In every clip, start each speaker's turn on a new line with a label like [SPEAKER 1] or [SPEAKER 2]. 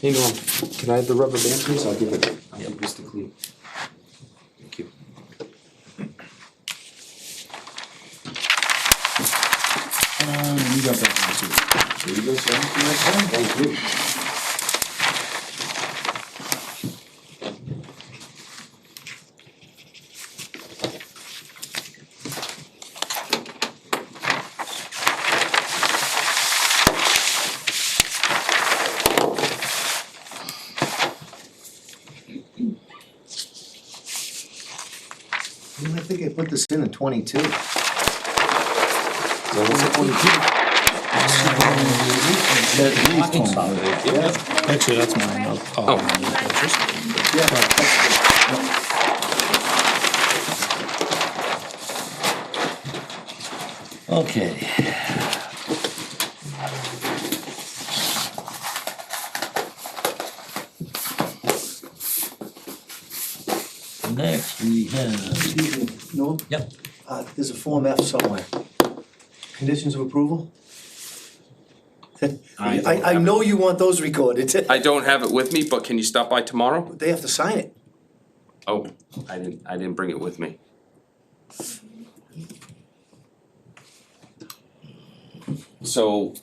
[SPEAKER 1] Hey Norm, can I have the rubber band please? I'll give it, I'll give this to Cleve. Thank you.
[SPEAKER 2] Uh, you got that one too. There you go, sir.
[SPEAKER 1] Thank you.
[SPEAKER 3] I think I put this in in twenty-two.
[SPEAKER 2] Actually, that's mine. I'll- I'll- Okay. Next, we have,
[SPEAKER 3] Norm?
[SPEAKER 2] Yep.
[SPEAKER 3] Uh, there's a Form F somewhere. Conditions of approval?
[SPEAKER 2] I
[SPEAKER 3] I,
[SPEAKER 2] don't
[SPEAKER 3] I know you want those recorded.
[SPEAKER 4] I don't have it with me, but can you stop by tomorrow?
[SPEAKER 3] They have to sign it.
[SPEAKER 4] Oh, I didn't, I didn't bring it with me. So,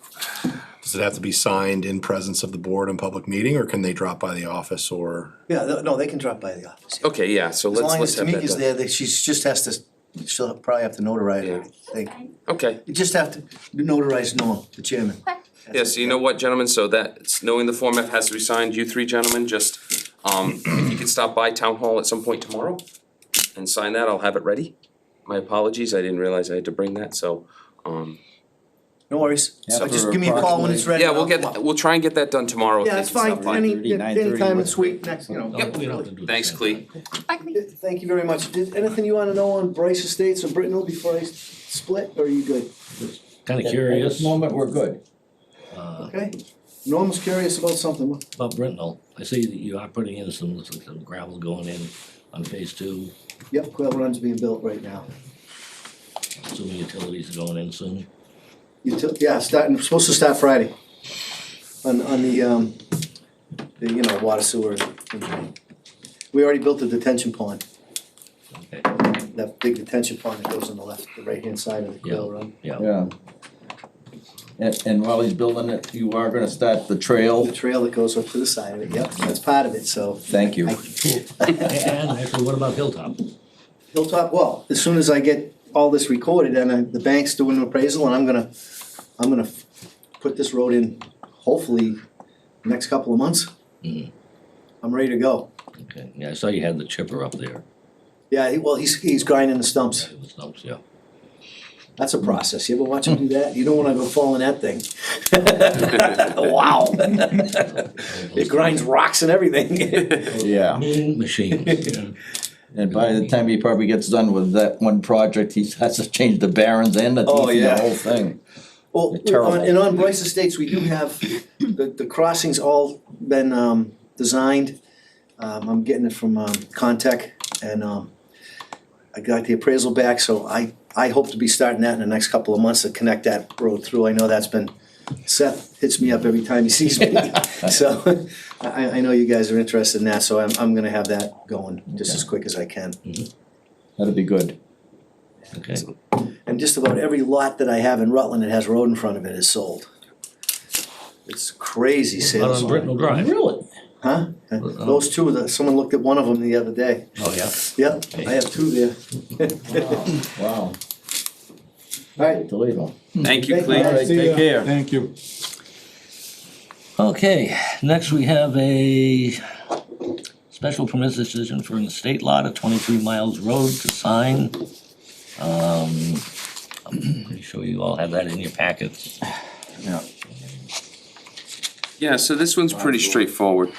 [SPEAKER 5] Does it have to be signed in presence of the board in public meeting, or can they drop by the office or?
[SPEAKER 3] Yeah, no- no, they can drop by the office.
[SPEAKER 4] okay, yeah, so
[SPEAKER 3] As
[SPEAKER 4] let's,
[SPEAKER 3] long as
[SPEAKER 4] let's have that
[SPEAKER 3] Tamika's
[SPEAKER 4] done.
[SPEAKER 3] there, that she's just has to, she'll probably have to notarize it, I think.
[SPEAKER 4] Okay,
[SPEAKER 3] You just have to notarize Norm, the chairman.
[SPEAKER 4] yeah, so you know what, gentlemen, so that's, knowing the Form F has to be signed, you three gentlemen, just, um, if you could stop by town hall at some point tomorrow and sign that, I'll have it ready. My apologies, I didn't realize I had to bring that, so, um,
[SPEAKER 3] No worries. So
[SPEAKER 2] Yeah,
[SPEAKER 3] just
[SPEAKER 2] for
[SPEAKER 3] give me a call when it's ready.
[SPEAKER 4] yeah, we'll
[SPEAKER 3] I'll
[SPEAKER 4] get,
[SPEAKER 3] come up.
[SPEAKER 4] we'll try and get that done tomorrow. if
[SPEAKER 3] Yeah,
[SPEAKER 4] they
[SPEAKER 3] it's
[SPEAKER 4] can stop
[SPEAKER 3] fine,
[SPEAKER 4] by.
[SPEAKER 3] any, any time this week, next, you know.
[SPEAKER 2] Yep. we don't have to do the
[SPEAKER 4] Thanks,
[SPEAKER 2] same
[SPEAKER 4] Cleve.
[SPEAKER 3] Thank you very much. Did, anything you wanna know on Bryce Estates or Brittenell before I s- split, or are you good?
[SPEAKER 2] kinda
[SPEAKER 6] At
[SPEAKER 2] curious
[SPEAKER 6] this moment, we're good.
[SPEAKER 3] Okay. Norm's curious about something.
[SPEAKER 2] about Brittenell. I see that you are putting in some, some gravel going in on phase two,
[SPEAKER 3] Yep, Quail Run's being built right now.
[SPEAKER 2] assuming utilities are going in soon.
[SPEAKER 3] You took, yeah, starting, supposed to start Friday. On, on the, um, the, you know, water sewer. and- We already built the detention pond,
[SPEAKER 2] Okay,
[SPEAKER 3] that big detention pond that goes on the left, the right-hand side of the Quail Run.
[SPEAKER 2] yeah.
[SPEAKER 6] Yeah. And, and while he's building it, you are gonna start the
[SPEAKER 3] The
[SPEAKER 6] trail.
[SPEAKER 3] trail that goes up to the side of it, yep, that's part of it, so.
[SPEAKER 6] Thank you.
[SPEAKER 3] I-
[SPEAKER 2] And actually, what about Hilltop?
[SPEAKER 3] Hilltop, well, as soon as I get all this recorded and I, the bank's doing an appraisal and I'm gonna, I'm gonna f- put this road in hopefully next couple of months.
[SPEAKER 2] Mhm.
[SPEAKER 3] I'm ready to go.
[SPEAKER 2] Okay, yeah, I saw you had the chipper up there,
[SPEAKER 3] Yeah, he- well, he's, he's grinding the stumps.
[SPEAKER 2] right, with stumps, yeah.
[SPEAKER 3] That's a process. You ever watch him do that? You don't wanna go fall in that thing. Wow. It grinds rocks and everything.
[SPEAKER 6] Yeah.
[SPEAKER 2] Mean machines,
[SPEAKER 6] And by the time he probably gets done with that one project, he has to change the barons and the
[SPEAKER 3] Oh,
[SPEAKER 6] teeth and
[SPEAKER 3] yeah.
[SPEAKER 6] the whole thing.
[SPEAKER 3] Well,
[SPEAKER 6] They're
[SPEAKER 3] on-
[SPEAKER 6] terrible.
[SPEAKER 3] and on Bryce Estates, we do have, the, the crossings all been, um, designed. Um, I'm getting it from, um, Contech and, um, I got the appraisal back, so I, I hope to be starting that in the next couple of months to connect that road through. I know that's been, Seth hits me up every time he sees me. So I, I know you guys are interested in that, so I'm, I'm gonna have that going just as quick as I can.
[SPEAKER 6] That'd be good.
[SPEAKER 2] Okay,
[SPEAKER 3] And just about every lot that I have in Rutland that has road in front of it is sold. It's crazy
[SPEAKER 2] out
[SPEAKER 3] sales.
[SPEAKER 2] on Brittenell Drive.
[SPEAKER 6] Really?
[SPEAKER 3] Huh? Uh, Those two, the- someone looked at one of them the other day.
[SPEAKER 2] Oh, yeah,
[SPEAKER 3] Yep, I have two there.
[SPEAKER 6] Wow,
[SPEAKER 3] All right,
[SPEAKER 6] Toledo.
[SPEAKER 4] Thank you,
[SPEAKER 3] Thank you.
[SPEAKER 4] Cleve.
[SPEAKER 6] All right, take care.
[SPEAKER 7] Thank you.
[SPEAKER 2] okay, next we have a special permit decision for an estate lot at twenty-three miles road to sign. Um, I'm pretty sure you all have that in your packets.
[SPEAKER 6] Yeah.
[SPEAKER 4] Yeah, so this one's pretty straightforward.